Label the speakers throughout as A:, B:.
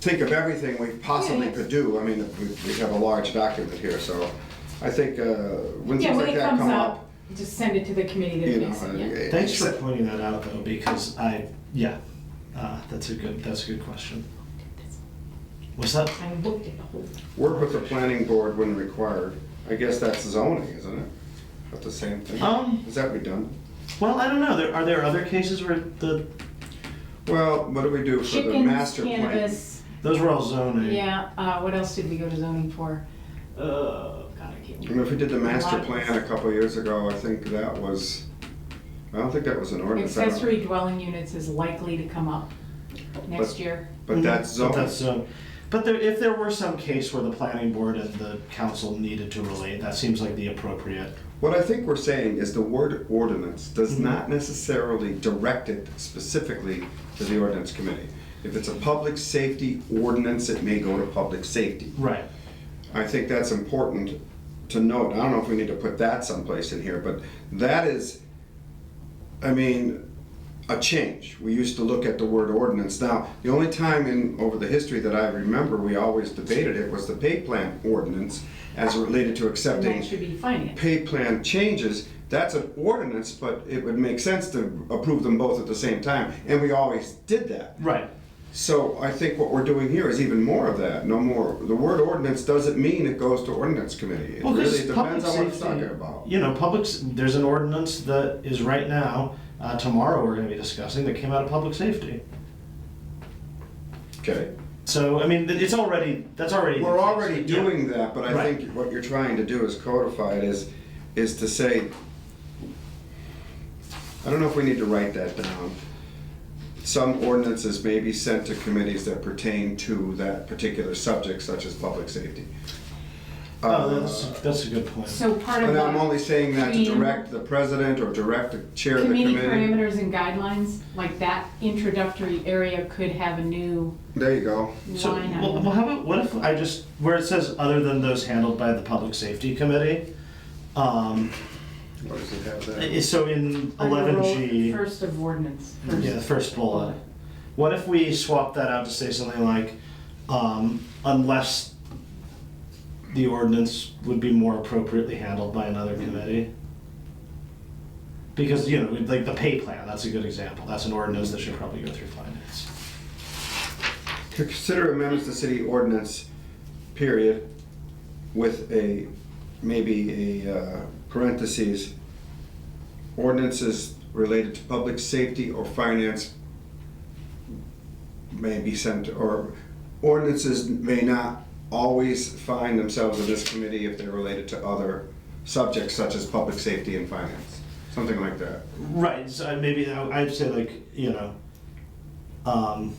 A: think of everything we possibly could do. I mean, we we have a large document here, so I think uh, when
B: Yeah,
A: things
B: when
A: like
B: it
A: that
B: comes
A: come up,
B: up, just send it to the committee
A: you
B: that
A: know.
B: makes it, yeah.
A: uh,
C: Thanks for pointing that out though, because I, yeah, uh, that's a good, that's a good question. What's that?
B: I looked at the whole,
A: Work with the planning board when required. I guess that's zoning, isn't it? That's the same thing.
C: Um.
A: Is that redundant?
C: Well, I don't know. There, are there other cases where the,
A: Well, what do we do for the
B: chickens,
A: master plan? Mm.
B: cannabis,
C: those were all zoning.
B: yeah, uh, what else did we go to zoning for?
C: Uh,
B: Oh, God, I can't
A: I mean,
B: remember.
A: if we did the
B: A
A: master
B: lot of-
A: plan a couple years ago, I think that was, I don't think that was an ordinance. I don't-
B: Accessory dwelling units is likely to come up next
A: But-
B: year.
A: But that's
C: Mhm, But
A: zoning.
C: that's zone. But there, if there were some case where the planning board and the council needed to relate, that seems like the appropriate.
A: What I think we're saying is the word ordinance does not necessarily direct it specifically to the ordinance committee. If it's a public safety ordinance, it may go to public safety.
C: Right.
A: I think that's important to note. I don't know if we need to put that someplace in here, but that is, I mean, a change. We used to look at the word ordinance. Now, the only time in, over the history that I remember, we always debated it was the pay plan ordinance as related to
B: And
A: accepting
B: that should be finance.
A: pay plan changes, that's an ordinance, but it would make sense to approve them both at the same time, and we always did that.
C: Right.
A: So I think what we're doing here is even more of that, no more, the word ordinance doesn't mean it goes to ordinance committee. It
C: Well,
A: really
C: because public
A: depends on what it's
C: safety,
A: talking about.
C: you know, public, s- there's an ordinance that is right now, uh, tomorrow we're gonna be discussing, that came out of public safety.
A: Okay,
C: So, I mean, th- it's already, that's already. the
A: we're
C: case.
A: already
C: Yeah.
A: doing that, but I
C: Right.
A: think what you're trying to do is codify it is, is to say, I don't know if we need to write that down. Some ordinances may be sent to committees that pertain to that particular subject, such as public safety.
C: Oh, that's, that's a good point.
B: So part of
A: And
B: the.
A: I'm only saying that to
B: Between-
A: direct the president or direct the chair of the
B: Committee
A: committee.
B: parameters and guidelines, like that introductory area could have a new
A: There you go.
C: So,
B: line
C: well,
B: item.
C: well, how about, what if I just, where it says other than those handled by the public safety committee? Um,
A: What does it have there?
C: i- so in eleven G.
B: First of ordinance.
C: Yeah, the first bullet. What if we swap that out to say something like, um, unless the ordinance would be more appropriately handled by another committee? Because, you know, like the pay plan, that's a good example. That's an ordinance that should probably go through finance.
A: To consider amendments to city ordinance, period, with a, maybe a uh, parentheses, ordinances related to public safety or finance may be sent, or ordinances may not always find themselves in this committee if they're related to other subjects such as public safety and finance, something like that.
C: Right, so I- maybe I- I'd say like, you know, um,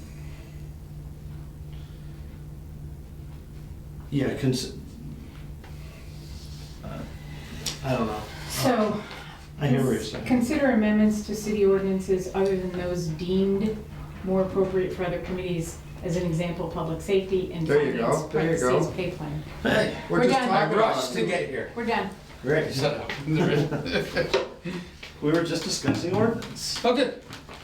C: yeah, cons- uh, I don't know.
B: So.
C: I hear what you're saying.
B: Consider amendments to city ordinances other than those deemed more appropriate for other committees. As an example, public safety and
A: There you go,
B: finance,
A: there you go.
B: parentheses, pay plan.
C: Hey.
A: We're
B: We're
A: just
B: done.
A: talking
B: I
A: about-
D: Rush to get here.
B: We're done.
C: Great.
D: So,
C: We were just discussing ordinance.
D: okay.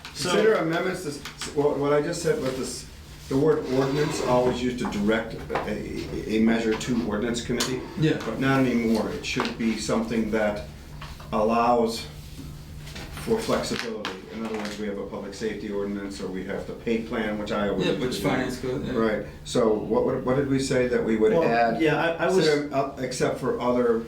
A: Consider amendments, this, what what I just said with this, the word ordinance always used to direct a, a measure to ordinance committee.
D: Yeah.
A: But not anymore, it should be something that allows for flexibility. In other words, we have a public safety ordinance, or we have the pay plan, which I always.
D: Yeah, which finance goes. yeah.
A: Right, so what, would- what did we say that we would
C: Well,
A: add?
C: yeah, I- I was-
A: Consider, uh, Except for other,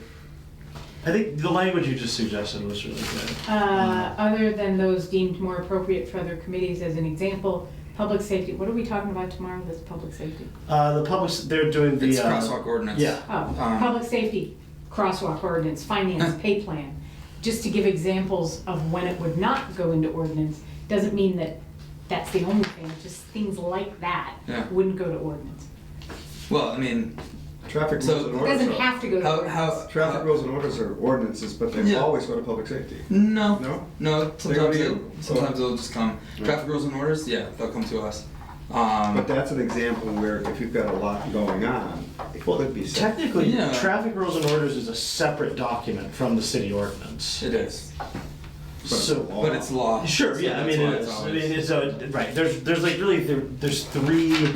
C: I think the language you just suggested was really good.
B: Uh, other than those deemed more appropriate for other committees, as an example, public safety, what are we talking about tomorrow that's public safety?
C: Uh, the public, they're doing the.
D: It's
C: uh,
D: crosswalk ordinance.
C: Yeah.
B: Oh,
D: Um,
B: public safety, crosswalk ordinance, finance, pay plan, just to give examples of when it would not go into ordinance, doesn't mean that that's the only thing, just things like that
D: Yeah.
B: wouldn't go to ordinance.
D: Well, I mean,
A: traffic rules
D: So-
A: and
D: It
A: orders.
B: Doesn't
A: are-
B: have to go to
D: how,
B: ordinance.
D: how.
A: Traffic
D: how-
A: rules and orders are ordinances, but they
D: Yeah.
A: always go to public safety.
D: No.
A: No?
D: No,
A: They go to
D: sometimes, they,
A: you.
D: sometimes they'll just come. Traffic rules and orders, yeah, they'll come to us. Um,
A: But that's an example where if you've got a lot going on, it
C: Well,
A: could be set.
C: technically,
D: Yeah.
C: traffic rules and orders is a separate document from the city ordinance.
D: it is.
C: So.
A: Oh.
D: But it's law.
C: Sure,
D: so
C: yeah, I
D: that's
C: mean,
D: why
C: it's, I
D: always-
C: mean, it's, uh, right, there's, there's like really, there- there's three